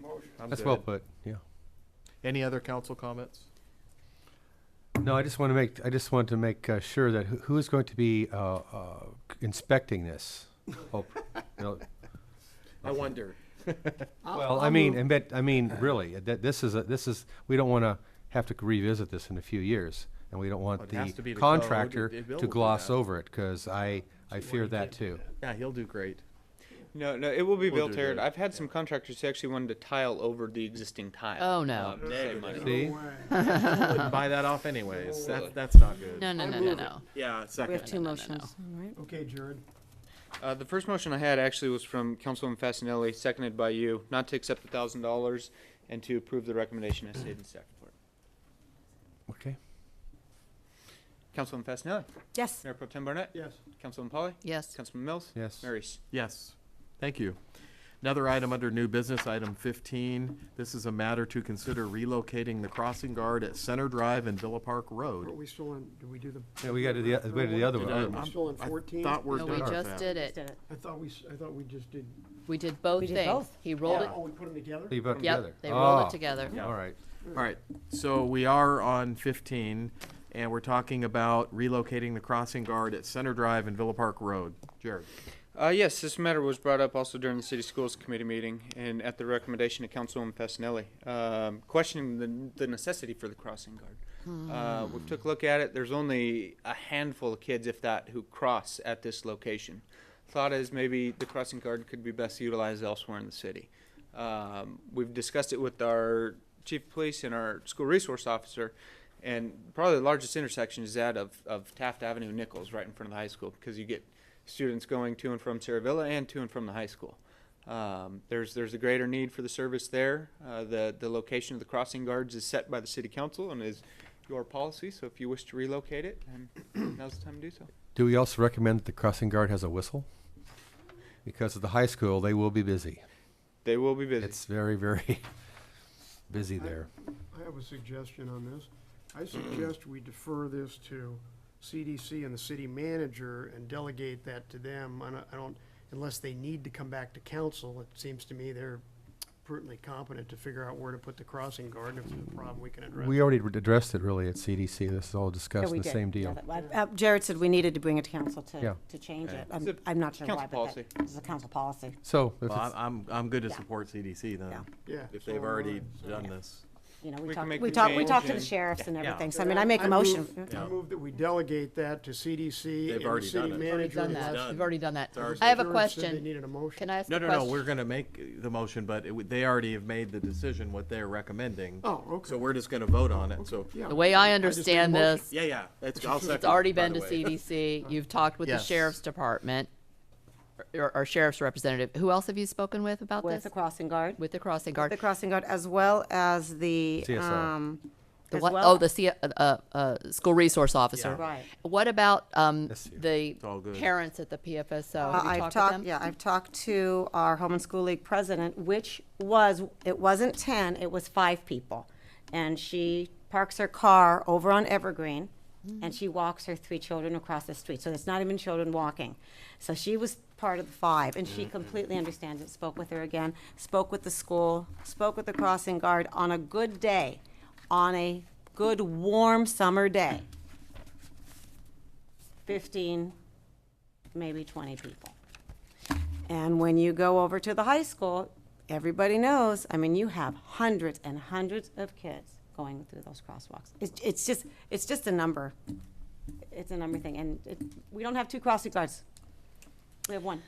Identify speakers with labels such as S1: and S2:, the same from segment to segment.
S1: motion.
S2: I'm
S3: That's well
S2: good.
S3: put, yeah.
S2: Any other council comments?
S3: No, I just want to make, I just want to make uh, sure that who- who is going to be uh, uh, inspecting this? Oh, no,
S2: I wonder.
S3: Well, I mean, I bet, I mean, really, that, this is, a this is, we don't want to have to revisit this in a few years. And we don't
S2: Well,
S3: want
S2: it has to be
S3: the
S2: the code,
S3: contractor
S2: it- it will
S3: to
S2: do
S3: gloss
S2: that.
S3: over it, because I, I fear that too.
S2: Yeah, he'll do great.
S4: No, no, it will be
S2: We'll
S4: built,
S2: do
S4: Aaron.
S2: that,
S4: I've had some contractors who actually wanted to tile over the existing tile.
S5: Oh, no.
S4: um, to save money.
S3: See?
S2: Wouldn't buy that off anyways. That, that's not good.
S5: No, no, no, no, no.
S2: Oh, Yeah,
S6: We
S2: second.
S6: have two
S5: no, no,
S6: motions, all right?
S1: Okay, Jared.
S4: Uh, the first motion I had actually was from Councilwoman Fascinelli, seconded by you, not to accept the thousand dollars and to approve the recommendation as stated in staff report.
S3: Okay.
S4: Councilwoman Fascinelli,
S6: Yes.
S4: Mayor Pro Tem Barnett,
S1: Yes.
S4: Councilwoman Polly,
S5: Yes.
S4: Councilman Mills,
S3: Yes.
S4: Mayor Reese.
S2: Yes, thank you. Another item under new business, item fifteen. This is a matter to consider relocating the crossing guard at Center Drive and Villa Park
S1: Are
S2: Road.
S1: we still on, did we do the?
S3: Yeah, we gotta do the- we gotta do the other
S2: Did
S3: one.
S2: I-
S1: We're
S2: I'm-
S1: still on
S2: I
S1: 14?
S2: Thought we're
S5: No,
S2: done
S5: we
S2: with
S5: just
S2: that.
S5: did
S6: Just
S5: it.
S6: did it.
S1: I thought we, s- I thought we just did.
S5: We did both
S6: We did
S5: things.
S6: both.
S5: He rolled it,
S1: Oh, we put them together?
S3: You put 'em together.
S5: yep, they rolled
S3: Ah,
S5: it together.
S3: All right.
S2: All right, so we are on 15, and we're talking about relocating the crossing guard at Center Drive and Villa Park Road. Jared?
S4: Uh, yes, this matter was brought up also during the city schools committee meeting and at the recommendation of Councilwoman Fasenelli, um, questioning the, the necessity for the crossing guard. Uh, we took a look at it. There's only a handful of kids, if that, who cross at this location. Thought is maybe the crossing guard could be best utilized elsewhere in the city. Um, we've discussed it with our chief of police and our school resource officer, and probably the largest intersection is that of, of Taft Avenue and Nichols, right in front of the high school, because you get students going to and from Sierra Villa and to and from the high school. Um, there's there's a greater need for the service there. Uh, the the location of the crossing guards is set by the city council and is your policy. So if you wish to relocate it, then now's the time to do so.
S3: Do we also recommend that the crossing guard has a whistle? Because at the high school, they will be busy.
S4: They will be busy.
S3: It's very, very busy there.
S1: I have a suggestion on this. I suggest we defer this to CDC and the city manager and delegate that to them. I don't- I don't, unless they need to come back to council, it seems to me they're pertinently competent to figure out where to put the crossing guard, and if it's a problem, we can address.
S3: We
S1: it.
S3: already re- addressed it really at CDC. This is all
S6: Yeah,
S3: discussed,
S6: we
S3: the
S6: did.
S3: same
S6: Yeah,
S3: deal.
S6: that- I- uh, Jared said we needed to bring it to council
S3: Yeah.
S6: to, to change it.
S4: It's
S6: I'm,
S4: a
S6: I'm not sure why,
S4: council
S6: but
S4: policy.
S6: that- it's a council policy.
S3: So, if
S2: Well, I'm-
S3: it's-
S2: I'm, I'm good to
S6: Yeah.
S2: support CDC then,
S6: Yeah.
S1: Yeah.
S2: if
S1: so
S2: they've
S1: am
S2: already
S1: I.
S2: done this.
S6: You know,
S4: We
S6: we
S4: can
S6: talked,
S4: make
S6: we
S4: the
S6: talked, we talked to the
S4: change.
S6: sheriffs and
S2: Yeah.
S6: everything, so I mean, I make a
S1: move-
S6: motion.
S1: I move that we delegate that to CDC
S2: They've
S1: and the
S2: already
S1: city
S2: done it.
S5: Already
S1: manager.
S5: done that.
S2: done.
S5: We've already done that.
S2: already
S5: I have a
S1: Jared said They
S5: question.
S1: needed a motion.
S5: Can I ask
S2: No,
S5: a
S2: no,
S5: question?
S2: no, we're gonna make the motion, but it w- they already have made the decision what they're recommending.
S1: Oh, okay.
S2: So we're just gonna vote on it, so.
S1: Yeah.
S5: The way I
S1: I just made a
S5: understand
S1: motion.
S5: this,
S2: Yeah, yeah, it's, I'll second.
S5: It's already
S2: by
S5: been
S2: the
S5: to
S2: way.
S5: CDC. You've talked with the
S2: Yes.
S5: sheriff's department, or, or sheriff's representative. Who else have you spoken with about
S6: With
S5: this?
S6: the crossing guard.
S5: With the crossing guard.
S6: The crossing guard, as well as the,
S3: CSO.
S6: um.
S5: The
S6: as
S5: what-
S6: well-
S5: Oh, the C, uh, uh, uh, school resource officer.
S6: Right.
S5: What about, um,
S3: This year.
S5: the
S2: all good.
S5: parents at the PFSO?
S6: Uh,
S5: Have you
S6: I've
S5: talked with
S6: talked,
S5: them?
S6: yeah, I've talked to our Home and School League president, which was, it wasn't ten, it was five people. And she parks her car over on Evergreen, and she walks her three children across the street, so it's not even children walking. So she was part of the five, and she completely understands it, spoke with her again, spoke with the school, spoke with the crossing guard on a good day, on a good, warm summer day. Fifteen, maybe twenty people. And when you go over to the high school, everybody knows, I mean, you have hundreds and hundreds of kids going through those crosswalks. It's, it's just, it's just a number. It's a number thing, and it, we don't have two crossing guards. We have one.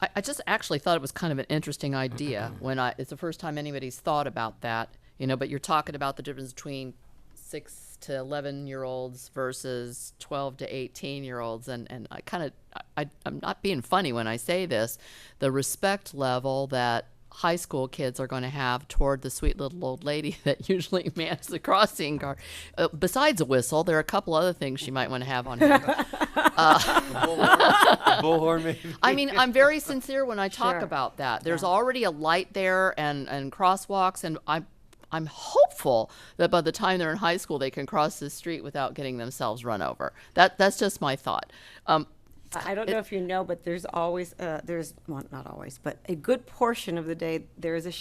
S5: I, I just actually thought it was kind of an interesting idea when I, it's the first time anybody's thought about that, you know, but you're talking about the difference between six to 11 year olds versus 12 to 18 year olds. And, and I kind of, I, I- I'm not being funny when I say this, the respect level that high school kids are going to have toward the sweet little old lady that usually mans the crossing guard. Uh, besides a whistle, there are a couple other things she might want to have on hand.
S3: Bullhorn, maybe?
S5: I mean, I'm very sincere when I talk
S6: Sure.
S5: about that. There's already a light there and, and crosswalks, and I'm I'm hopeful that by the time they're in high school, they can cross the street without getting themselves run over. That that's just my thought. Um,
S6: I I don't know if you know, but there's always, uh, there's, well, not always, but a good portion of the day, there is a